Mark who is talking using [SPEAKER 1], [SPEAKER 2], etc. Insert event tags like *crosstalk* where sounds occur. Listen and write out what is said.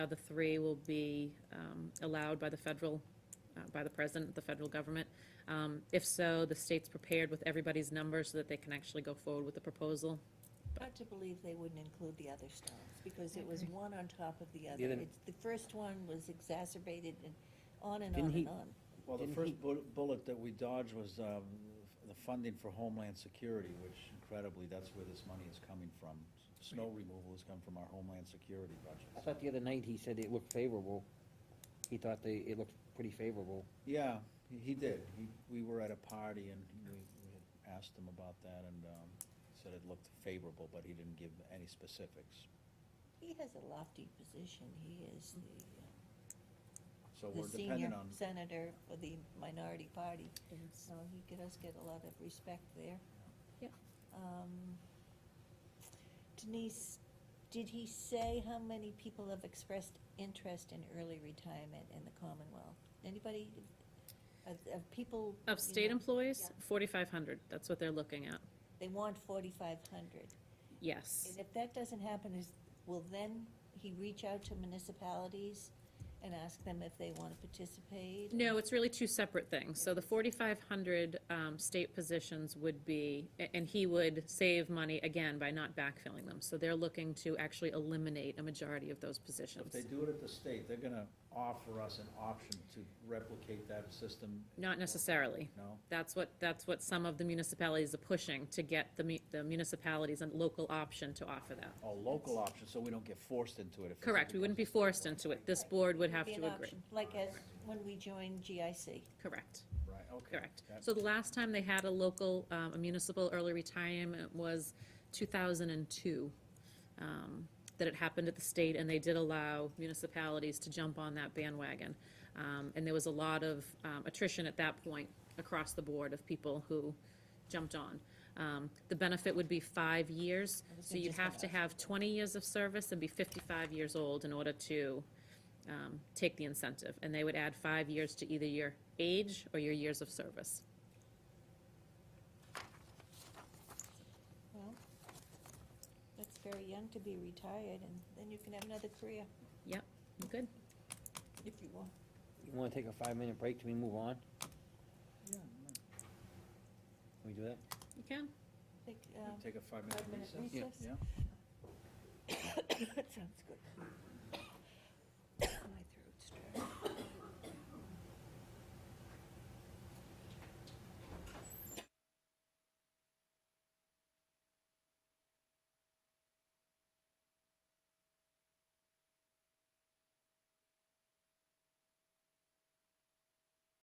[SPEAKER 1] other three will be um, allowed by the federal, uh, by the president, the federal government. Um, If so, the state's prepared with everybody's numbers so that they can actually go forward with the proposal.
[SPEAKER 2] Hard to believe they wouldn't include the other stones, because it was one on top of the
[SPEAKER 3] The
[SPEAKER 2] other.
[SPEAKER 3] other-
[SPEAKER 2] It's- The first one was exacerbated and on and
[SPEAKER 3] Didn't
[SPEAKER 2] on
[SPEAKER 3] he-
[SPEAKER 2] and on.
[SPEAKER 4] Well, the
[SPEAKER 3] Didn't he-
[SPEAKER 4] first bu- bullet that we dodged was um, the funding for Homeland Security, which incredibly, that's where this money is coming from. Snow removal has come from our Homeland Security
[SPEAKER 3] I
[SPEAKER 4] budget.
[SPEAKER 3] thought the other night he said it looked favorable. He thought they, it looked pretty favorable.
[SPEAKER 4] Yeah, he- he did. He- We were at a party and we we had asked him about that and um, said it looked favorable, but he didn't give any specifics.
[SPEAKER 2] He has a lofty position. He is the,
[SPEAKER 4] So
[SPEAKER 2] uh,
[SPEAKER 4] we're
[SPEAKER 2] the senior
[SPEAKER 4] dependent on,
[SPEAKER 2] senator for the minority party, so he could- does get a lot of respect there.
[SPEAKER 1] Yep.
[SPEAKER 2] Um, Denise, did he say how many people have expressed interest in early retirement in the Commonwealth? Anybody, of, of people?
[SPEAKER 1] Of
[SPEAKER 2] you
[SPEAKER 1] state
[SPEAKER 2] know,
[SPEAKER 1] employees, 4,500, that's what they're looking at,
[SPEAKER 2] They want forty-five hundred.
[SPEAKER 1] yes.
[SPEAKER 2] And if that doesn't happen, is, will then he reach out to municipalities and ask them if they want to participate?
[SPEAKER 1] No, it's really two separate things. So the 4,500 um, state positions would be, a- and he would save money again by not backfilling them. So they're looking to actually eliminate a majority of those positions.
[SPEAKER 4] if they do it at the state, they're gonna offer us an option to replicate that system,
[SPEAKER 1] Not necessarily.
[SPEAKER 4] no?
[SPEAKER 1] That's what, that's what some of the municipalities are pushing, to get the mu- the municipalities a local option to offer that.
[SPEAKER 4] A local option, so we don't get forced into it if.
[SPEAKER 1] Correct, we wouldn't be forced into it. This board would have
[SPEAKER 2] Be
[SPEAKER 1] to
[SPEAKER 2] an
[SPEAKER 1] agree.
[SPEAKER 2] option, Like as, when we joined GIC.
[SPEAKER 1] Correct,
[SPEAKER 4] Right, okay.
[SPEAKER 1] correct.
[SPEAKER 4] That-
[SPEAKER 1] So the last time they had a local, um, a municipal early retirement was 2002, um, that it happened at the state, and they did allow municipalities to jump on that bandwagon. Um, And there was a lot of um, attrition at that point across the board of people who jumped on. Um, The benefit would be five years, so you'd have to have 20 years of service and be 55 years old in order to um, take the incentive. And they would add five years to either your age or your years of service.
[SPEAKER 2] Well, that's very young to be retired, and then you can have another career
[SPEAKER 1] Yep, you good?
[SPEAKER 2] if you want.
[SPEAKER 3] You wanna take a five-minute break till we move on?
[SPEAKER 4] Yeah,
[SPEAKER 3] Can we do that?
[SPEAKER 1] You can.
[SPEAKER 2] Like,
[SPEAKER 4] no.
[SPEAKER 2] um,
[SPEAKER 4] Take a five-minute
[SPEAKER 2] Five-minute
[SPEAKER 4] recess?
[SPEAKER 2] recess? *coughs*
[SPEAKER 4] Yeah.
[SPEAKER 2] That sounds good. *coughs*